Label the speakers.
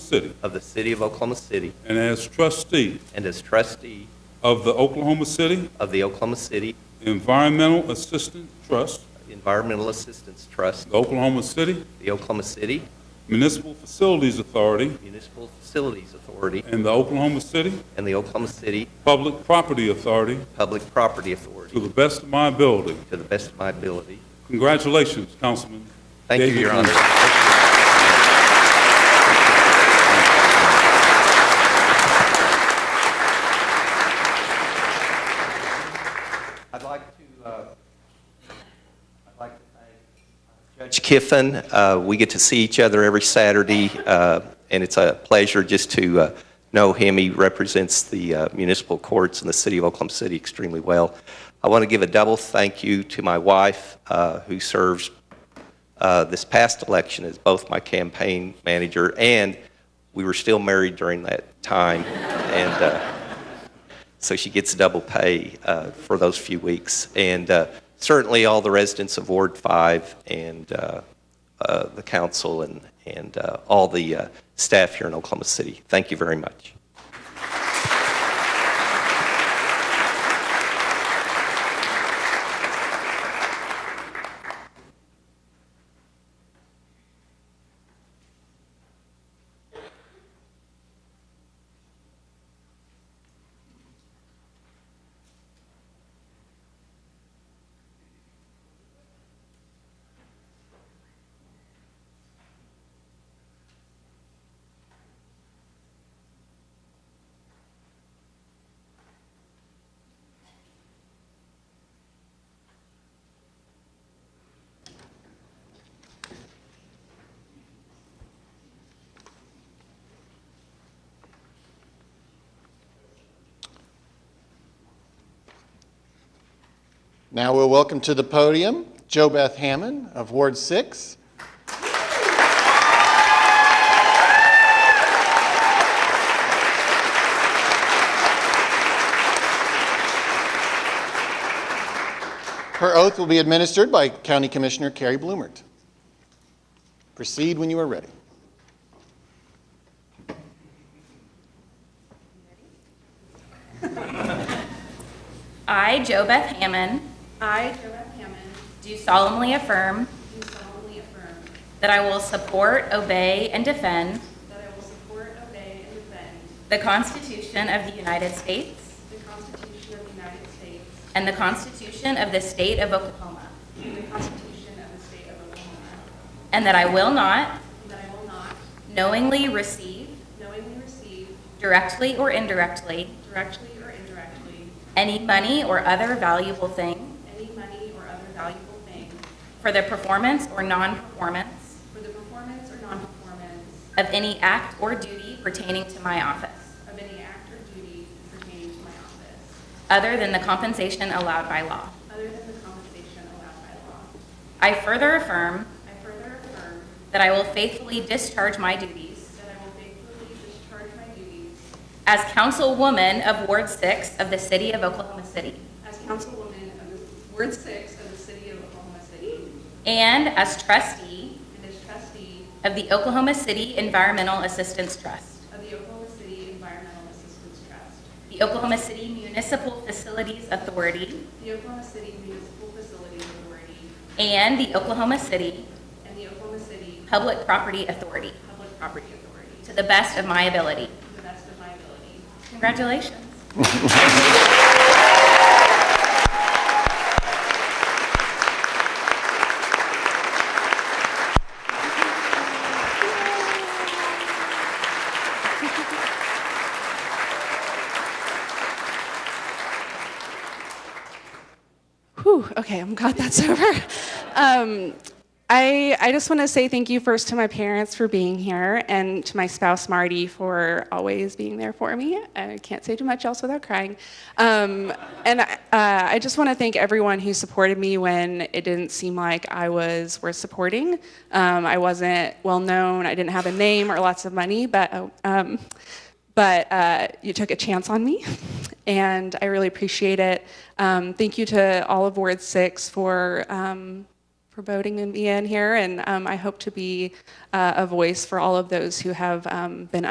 Speaker 1: City
Speaker 2: of the City of Oklahoma City
Speaker 1: and as trustee
Speaker 2: and as trustee
Speaker 1: of the Oklahoma City
Speaker 2: of the Oklahoma City
Speaker 1: Environmental Assistance Trust,
Speaker 2: Environmental Assistance Trust,
Speaker 1: the Oklahoma City
Speaker 2: the Oklahoma City
Speaker 1: Municipal Facilities Authority,
Speaker 2: Municipal Facilities Authority,
Speaker 1: and the Oklahoma City
Speaker 2: and the Oklahoma City
Speaker 1: Public Property Authority
Speaker 2: Public Property
Speaker 1: to
Speaker 2: Authority
Speaker 1: the best of my ability.
Speaker 2: to the best of my ability.
Speaker 1: Congratulations, Councilman.
Speaker 2: Thank you,
Speaker 1: David
Speaker 2: Your
Speaker 1: Green.
Speaker 2: Honor. I'd like to, uh, I'd like to thank uh, Judge Kiffin. Uh, We get to see each other every Saturday, uh, and it's a pleasure just to uh, know him. He represents the uh, municipal courts in the city of Oklahoma City extremely well. I want to give a double thank you to my wife, uh, who serves uh, this past election as both my campaign manager, and we were still married during that time. And uh, so she gets double pay uh, for those few weeks. And uh, certainly all the residents of Ward 5 and uh, uh, the council and, and uh, all the uh, staff here in Oklahoma City. Thank you very much.
Speaker 3: Now we'll welcome to the podium Jo Beth Hammond of Ward 6. Her oath will be administered by County Commissioner Carrie Bloomert. Proceed when you are ready.
Speaker 4: I, Jo Beth Hammond,
Speaker 5: I, Joab Hammond,
Speaker 4: do solemnly affirm
Speaker 5: do solemnly affirm
Speaker 4: that I will support, obey, and defend
Speaker 5: that I will support, obey, and defend
Speaker 4: the Constitution of the United States
Speaker 5: the Constitution of the United States
Speaker 4: and the Constitution of the State of Oklahoma,
Speaker 5: and the Constitution of the State of Oklahoma,
Speaker 4: and that I will not
Speaker 5: and that I will not
Speaker 4: knowingly receive,
Speaker 5: knowingly receive,
Speaker 4: directly or indirectly,
Speaker 5: directly or indirectly,
Speaker 4: any money or other valuable thing
Speaker 5: any money or other valuable thing
Speaker 4: for the performance or non-performance
Speaker 5: for the performance or non-performance
Speaker 4: of any act or duty pertaining to my office,
Speaker 5: of any act or duty pertaining to my office,
Speaker 4: other than the compensation allowed by law.
Speaker 5: other than the compensation allowed by law.
Speaker 4: I further affirm
Speaker 5: I further affirm
Speaker 4: that I will faithfully discharge my duties
Speaker 5: that I will faithfully discharge my duties
Speaker 4: As councilwoman of Ward 6 of the City of Oklahoma City,
Speaker 5: As councilwoman of the Ward Six of the City of Oklahoma City
Speaker 4: and as trustee
Speaker 5: and as trustee
Speaker 4: of the Oklahoma City Environmental Assistance Trust,
Speaker 5: of the Oklahoma City Environmental Assistance Trust,
Speaker 4: the Oklahoma City Municipal Facilities Authority,
Speaker 5: the Oklahoma City Municipal Facilities Authority,
Speaker 4: and the Oklahoma City
Speaker 5: and the Oklahoma City
Speaker 4: Public Property Authority,
Speaker 5: Public Property Authority
Speaker 4: to the best of my ability.
Speaker 5: to the best of my ability.
Speaker 4: Congratulations.
Speaker 6: Whew, okay, I'm glad that's over. Um, I, I just want to say thank you first to my parents for being here and to my spouse Marty for always being there for me. I can't say too much else without crying. Um, and I, uh, I just want to thank everyone who supported me when it didn't seem like I was worth supporting. Um, I wasn't well known, I didn't have a name or lots of money, but oh, um, but uh, you took a chance on me, and I really appreciate it. Um, thank you to all of Ward Six for um, for for voting me in here, and um, I hope to be uh, a voice for all of those who have um, been